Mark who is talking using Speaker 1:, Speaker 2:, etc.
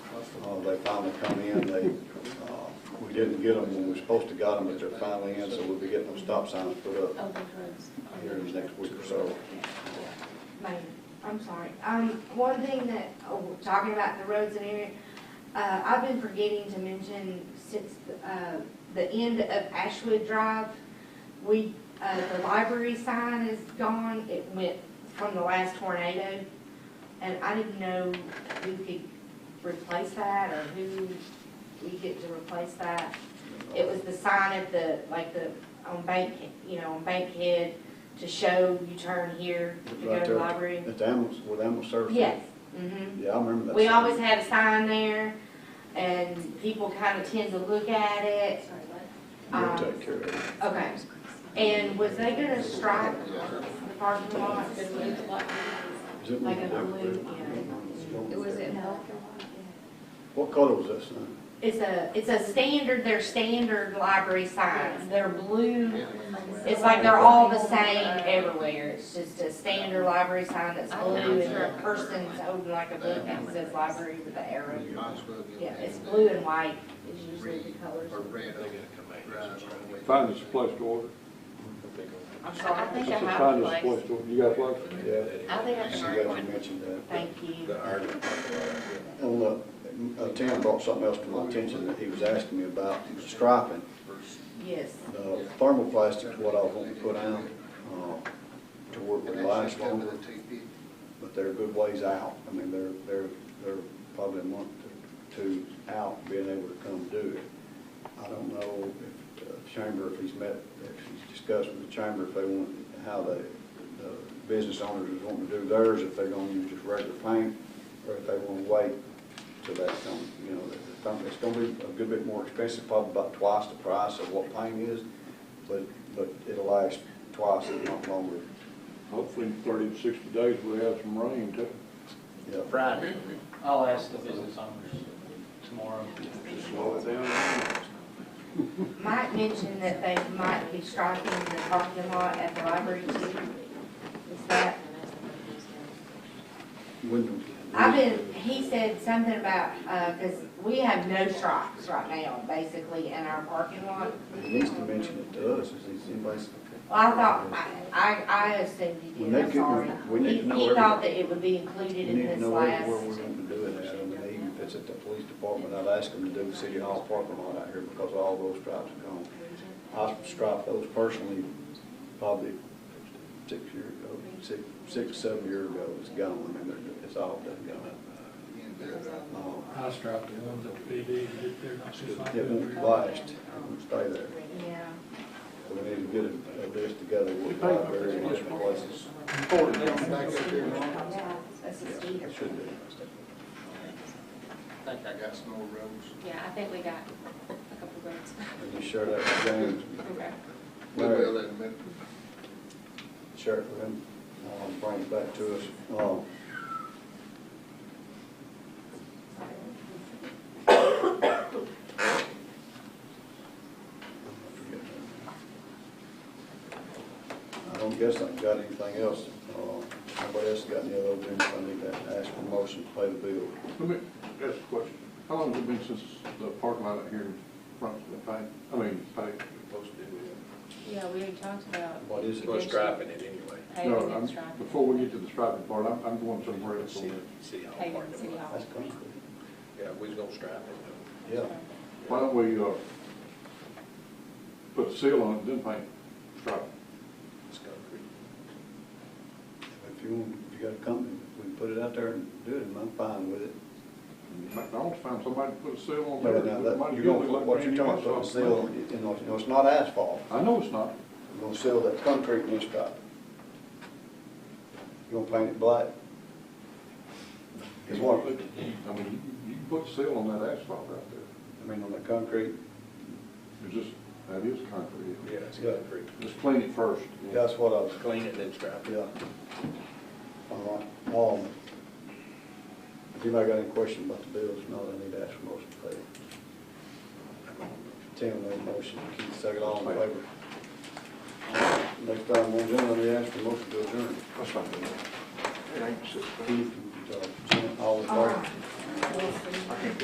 Speaker 1: Uh, They finally come in, they, uh, we didn't get them when we were supposed to got them, but they're finally in, so we'll be getting those stop signs put up
Speaker 2: Over drugs.
Speaker 1: here in the next week or so.
Speaker 3: Mayor, I'm sorry. Um, one thing that, oh, talking about the roads and area, uh, I've been forgetting to mention since, uh, the end of Ashwood Drive, we, uh, the library sign is gone. It went from the last tornado. And I didn't know who could replace that or who we get to replace that. It was the sign at the, like the, on Bank, you know, on Bankhead to show you turn here to
Speaker 1: It's
Speaker 3: go
Speaker 1: right
Speaker 3: to the
Speaker 1: there.
Speaker 3: library.
Speaker 1: At the ambulance, with ambulance service.
Speaker 3: Yes, mhm.
Speaker 1: Yeah, I remember that.
Speaker 3: We
Speaker 1: sign.
Speaker 3: always had a sign there and people kind of tend to look at it.
Speaker 2: Sorry, what?
Speaker 1: We'll
Speaker 3: um,
Speaker 1: take care of it.
Speaker 3: Okay. And was they gonna stripe the parking lot?
Speaker 1: Is it-
Speaker 3: Like a blue,
Speaker 4: It was at
Speaker 2: No.
Speaker 4: black and white.
Speaker 1: What color was that sign?
Speaker 3: It's a, it's a standard, they're standard library signs. They're blue. It's like they're all the same everywhere. It's just a standard library sign that's blue and the person's holding like a book that says library with an arrow. Yeah, it's blue and white is usually the colors.
Speaker 5: Or red.
Speaker 6: Find us a place to order.
Speaker 3: I'm
Speaker 2: I
Speaker 3: sorry.
Speaker 2: think I
Speaker 6: Just
Speaker 2: have
Speaker 6: Find
Speaker 2: a
Speaker 6: us a
Speaker 2: place.
Speaker 6: place to order. You got a place?
Speaker 1: Yeah.
Speaker 2: I think I
Speaker 1: She
Speaker 2: can
Speaker 1: guys
Speaker 2: write
Speaker 1: had
Speaker 2: one.
Speaker 1: mentioned that.
Speaker 3: Thank you.
Speaker 1: On the, uh, Tim brought something else to my attention that he was asking me about, striping.
Speaker 3: Yes.
Speaker 1: The thermoplastic's what I was wanting to put out, uh, to work with limestone, but they're a good ways out. I mean, they're, they're, they're probably a month to two out being able to come do it. I don't know if the chamber, if he's met, if he's discussed with the chamber, if they want, how the, the business owners is wanting to do theirs, if they're gonna use just regular paint, or if they wanna wait till that comes, you know, that- that something- it's gonna be a good bit more expensive, probably about twice the price of what paint is, but, but it'll last twice if not longer.
Speaker 6: Hopefully in thirty to sixty days we'll have some rain too.
Speaker 1: Yeah,
Speaker 7: Friday, I'll ask the business owners tomorrow.
Speaker 6: Slow it down.
Speaker 3: Mike mentioned that they might be striking the parking lot at the library too. Is that,
Speaker 1: When-
Speaker 3: I've been, he said something about, uh 'cause cause we have no stripes right now, basically, in our parking lot.
Speaker 1: He needs to mention it to us, is he- anybody's?
Speaker 3: Well, I thought, I, I, I assumed you
Speaker 1: We
Speaker 3: did,
Speaker 1: need
Speaker 3: I'm
Speaker 1: to-
Speaker 3: sorry.
Speaker 1: we need
Speaker 3: He,
Speaker 1: to know
Speaker 3: he
Speaker 1: everything.
Speaker 3: thought that it would be included
Speaker 1: We
Speaker 3: in
Speaker 1: need to
Speaker 3: this
Speaker 1: know where where
Speaker 3: last.
Speaker 1: we're going to do it at, I mean, even if it's at the police department, I'd ask them to do the city hall parking lot out here because all those stripes are gone. I striped those personally probably six years ago, six, six, seven years ago, it's gone, I mean, they're- it's all done gone. Uh,
Speaker 8: I striped the ones at the PD, they're not just like
Speaker 1: It won't
Speaker 8: that.
Speaker 1: last, it'll stay there.
Speaker 3: Yeah.
Speaker 1: We need to get a- a list together with the library and different places.
Speaker 3: That's a
Speaker 1: Yeah,
Speaker 3: Steve.
Speaker 1: it Should be.
Speaker 5: think I got some more roads.
Speaker 4: Yeah, I think we got a couple of votes.
Speaker 1: And you share that with James.
Speaker 4: Okay.
Speaker 5: We will in a minute.
Speaker 1: Sheriff, for him, uh, bring it back to us. Uh, I don't guess I've got anything else. Uh, Nobody else got any other business I need to ask for motion to pay the bill?
Speaker 6: Let me ask a question. How long has it been since the parking lot out here in front of the paint, I mean, paint?
Speaker 4: Yeah, we already talked about.
Speaker 1: What is it?
Speaker 4: We're striping
Speaker 7: it anyway.
Speaker 6: No,
Speaker 4: Paving
Speaker 6: I'm-
Speaker 4: and striping,
Speaker 6: before we get to the striping part, I'm, I'm going somewhere else on this.
Speaker 7: City Hall
Speaker 4: paving
Speaker 7: parking
Speaker 4: city
Speaker 7: lot.
Speaker 4: hall.
Speaker 1: That's concrete.
Speaker 7: Yeah, we was gonna stripe it.
Speaker 1: Yeah.
Speaker 6: Why don't we, uh, put a seal on it, then paint, stripe?
Speaker 7: It's concrete.
Speaker 1: If you want, if you got a company, we can put it out there and do it, and I'm fine with it.
Speaker 6: McDonald's find somebody to put a seal on
Speaker 1: But
Speaker 6: there.
Speaker 1: now,
Speaker 6: Might
Speaker 1: that,
Speaker 6: as
Speaker 1: you're
Speaker 6: well
Speaker 1: gonna,
Speaker 6: look like
Speaker 1: what you're
Speaker 6: brand new
Speaker 1: talking about,
Speaker 6: asphalt.
Speaker 1: seal, you know, you know, it's not asphalt,
Speaker 6: I know it's not.
Speaker 1: you're gonna seal that concrete and it's got. You're gonna paint it black. It's what,
Speaker 6: I mean, you, you can put a seal on that asphalt right there.
Speaker 1: I mean, on the concrete,
Speaker 6: It's just, that is concrete.
Speaker 7: Yeah, it's concrete.
Speaker 6: Let's clean it first.
Speaker 1: that's what I was,
Speaker 7: Clean it, then stripe it.
Speaker 1: yeah. All right, um, if anybody got any question about the bills, no, I need to ask for motion to pay. Tim made a motion, Keith second, all in favor. Next time, one gentleman, we ask for motion to adjourn.
Speaker 6: That's not good. It ain't six.
Speaker 1: Keith, uh, all in
Speaker 3: All
Speaker 1: favor?
Speaker 3: right.